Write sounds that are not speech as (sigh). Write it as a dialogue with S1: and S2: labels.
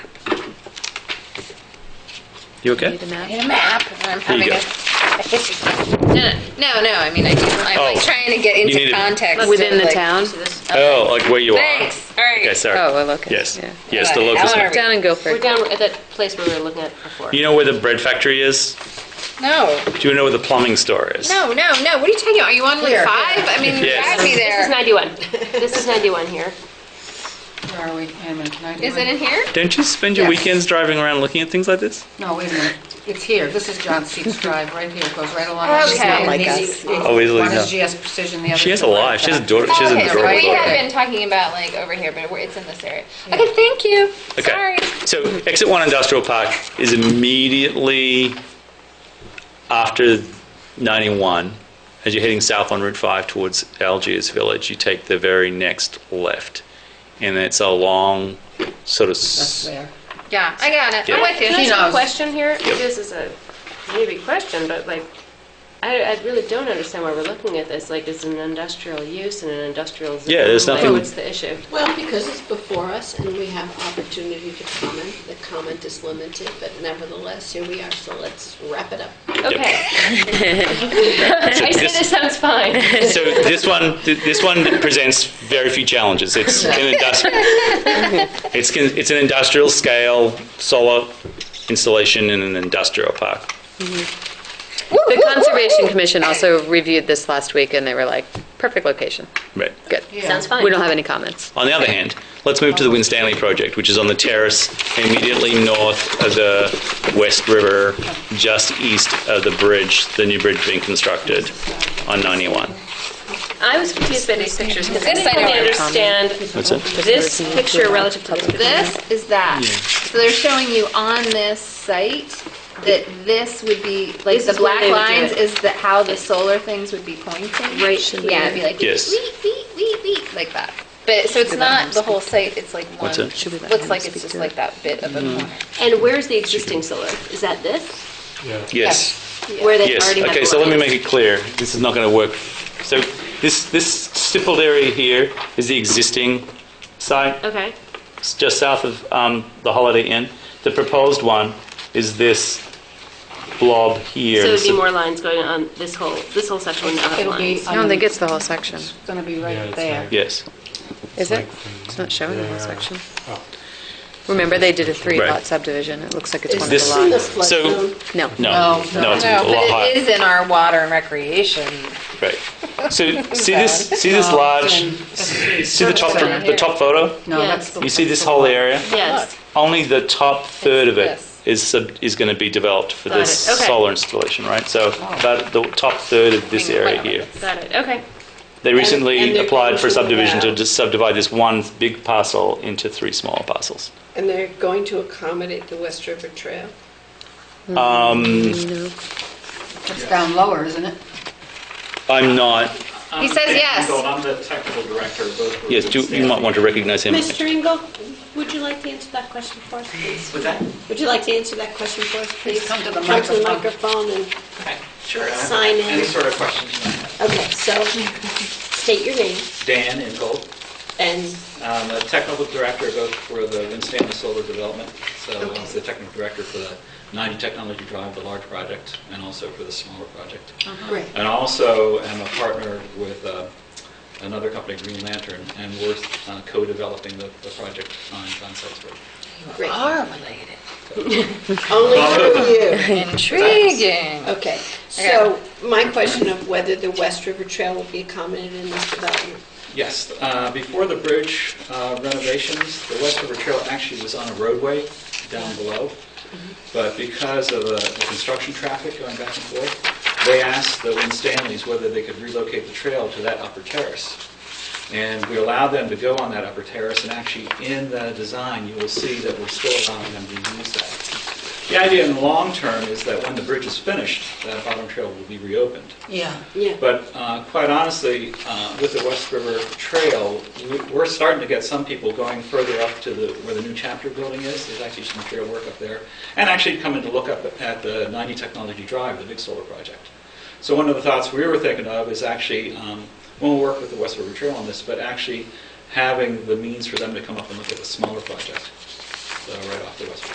S1: You okay?
S2: Need a map?
S3: Need a map. and I'm
S1: Here you
S3: having
S1: go.
S2: (laughs)
S3: a-
S2: No, no, no, I mean, I do,
S3: I'm
S2: I,
S1: Oh.
S3: like trying to get
S1: You
S3: into
S1: needed-
S3: context.
S2: within
S3: of,
S2: the
S3: like-
S2: town?
S1: Oh, like where you are?
S3: Thanks. All right.
S1: Okay, sorry.
S2: Oh, well, okay,
S1: Yes,
S2: yeah.
S1: yes, the
S3: Right,
S1: locust.
S3: Eleanor.
S2: Down in
S4: We're
S2: Guilford.
S4: down at that place where we were looking at before.
S1: You know where the bread factory is?
S3: No,
S1: Do you know where the plumbing store is?
S2: No, no, no, what are you talking about? Are you on like
S3: Here.
S2: five? I mean,
S1: Yes.
S2: drive me
S4: This is
S2: there.
S4: 91. This is 91 here.
S5: Where are we? Wait a minute, can I do
S2: Is it in here?
S1: Don't you spend your
S5: Yeah.
S1: weekends driving around looking at things like this?
S5: No, wait a minute. It's here. This is John Seats Drive, right here. It goes right along.
S2: Okay.
S5: She's not
S2: like
S5: us.
S1: Always like
S5: One is
S1: that.
S5: GS Precision, the other.
S1: She has
S5: is
S1: a lot. She has a daughter. She has
S2: Okay,
S1: a
S5: Yeah,
S2: so
S1: adorable
S5: right
S2: we have
S1: daughter.
S2: been talking about like over here, but we're- it's in this area. Okay, thank you. Sorry.
S1: Okay. So exit one industrial park is immediately after 91. As you're heading south on Route 5 towards Algiers Village, you take the very next left. And it's a long sort of.
S5: That's there.
S2: Yeah, I got it.
S1: Yeah.
S2: I'm with you.
S4: Can I
S5: She
S4: ask a
S5: knows.
S4: question here? This is a maybe question, but like, I, I really don't understand why we're looking at this. Like, it's an industrial use and an industrial zone.
S1: Yeah, there's nothing-
S4: Like, what's the issue?
S6: Well, because it's before us and we have opportunity to comment. The comment is limited, but nevertheless, here we are, so let's wrap it up.
S4: Okay. I say this
S1: (laughs)
S4: sounds fine.
S1: So this one, th- this one presents very few challenges. It's an industrial, it's, con- it's an industrial scale solar installation in an industrial park.
S2: The Conservation Commission also reviewed this last week and they were like, perfect location.
S1: Right.
S2: Good.
S4: Sounds fine.
S2: We don't have any comments.
S1: On the other hand, let's move to the Win Stanley project, which is on the terrace immediately north of the West River, just east of the bridge, the new bridge being constructed on 91.
S4: I was confused by these pictures because I
S2: This
S4: didn't
S2: I
S4: really
S2: know.
S4: understand
S1: That's it.
S4: this picture relative to this picture.
S2: This is that. So they're showing you on this site that this would be, like
S4: This
S2: the
S4: is where
S2: black
S4: they would do
S2: lines
S4: it.
S2: is the, how the solar things would be pointing.
S4: Right, should
S2: Yeah,
S4: we-
S2: it'd be like,
S1: Yes.
S2: wee, wee, wee, wee, like that. But, so it's not the whole site, it's like one,
S1: What's that? Mm-hmm. Should
S2: looks like it's just like that bit of a corner.
S4: And where's the existing solar? Is that this?
S1: Yes.
S4: Where they
S1: Yes,
S4: already have
S1: okay,
S4: the
S1: so let me
S4: lines?
S1: make it clear, this is not going to work. So this, this stippled area here is the existing site,
S4: Okay.
S1: It's just south of um, the Holiday Inn. The proposed one is this blob here.
S4: So there'd
S1: This
S4: be
S1: is-
S4: more lines going on this whole, this whole section would not have
S5: It'll be.
S4: lines.
S5: I don't think it's
S2: the whole section.
S5: gonna be
S7: Yeah,
S5: right
S7: it's
S5: there.
S1: Yes,
S2: Is it? It's not showing the whole section. Remember, they did a
S1: Oh. Right.
S2: three-lot subdivision. It looks like it's
S6: Is
S2: one of
S1: this-
S6: this in
S2: the
S6: the
S2: lots.
S6: flood
S1: So-
S6: zone?
S2: No.
S1: no,
S4: Oh,
S1: no, it's a
S3: No,
S1: lot
S3: but it
S1: higher.
S3: is in our water and recreation.
S1: Right.
S3: (laughs)
S1: So see this, see this
S4: Oh.
S5: No,
S1: large,
S5: it's in-
S1: see the top, the top photo?
S5: No,
S4: Yeah.
S5: that's. the-
S1: You see this whole area?
S4: Yes.
S1: Only the top third of it
S3: Yes.
S1: is, sub- is going to be developed for
S4: Got
S1: this
S4: it, okay.
S1: solar installation, right? So that, the top third of this area here.
S4: Got it. Okay.
S1: They recently
S6: and they're
S1: applied for
S6: going to
S1: subdivision to
S6: allow-
S1: just subdivide this one big parcel into three smaller parcels.
S6: And they're going to accommodate the West River Trail?
S5: It's down lower, isn't it?
S1: I'm not,
S2: He says yes.
S7: I'm the technical director of both.
S1: yes, do- you might want to recognize him.
S6: Mr. Engel, would you like to answer that question for us, please?
S7: What's that?
S6: Would you like to answer that question for us, please?
S5: come to the
S6: microphone and,
S7: Okay, Sure. I have
S6: Sign in.
S7: Any sort of questions you might have.
S6: okay, so state your name
S7: Dan Ingold,
S6: and
S7: I'm Um, the technical director of both for the Winstanley Solar Development. So I'm the technical director for the 90 Technology Drive, the large project, and also for the smaller project.
S6: great.
S7: And also am a partner with uh, another company, Green Lantern, and we're uh, co-developing the the project on John Seltz Road.
S6: Great.
S3: Are related.
S6: (laughs) Only
S1: (laughs)
S6: through you.
S3: Intriguing.
S6: Okay, so my question of whether the West River Trail will be accommodated in this development.
S7: Yes, uh, before the bridge uh, renovations, the West River Trail actually was on a roadway down below, but because of the the construction traffic going back and forth, they asked the Lynn Stanleys whether they could relocate the trail to that upper terrace. And we allowed them to go on that upper terrace, and actually in the design, you will see that we're still allowing them to use that. The idea in the long term is that when the bridge is finished, that bottom trail will be reopened.
S5: Yeah.
S6: Yeah.
S7: But uh, quite honestly, uh, with the West River Trail, we- we're starting to get some people going further up to the, where the new chapter building is. There's actually some trail work up there. And actually coming to look up at the 90 Technology Drive, the big solar project. So one of the thoughts we were thinking of is actually, um, we'll work with the West River Trail on this, but actually having the means for them to come up and look at the smaller project, so uh, right off the West River.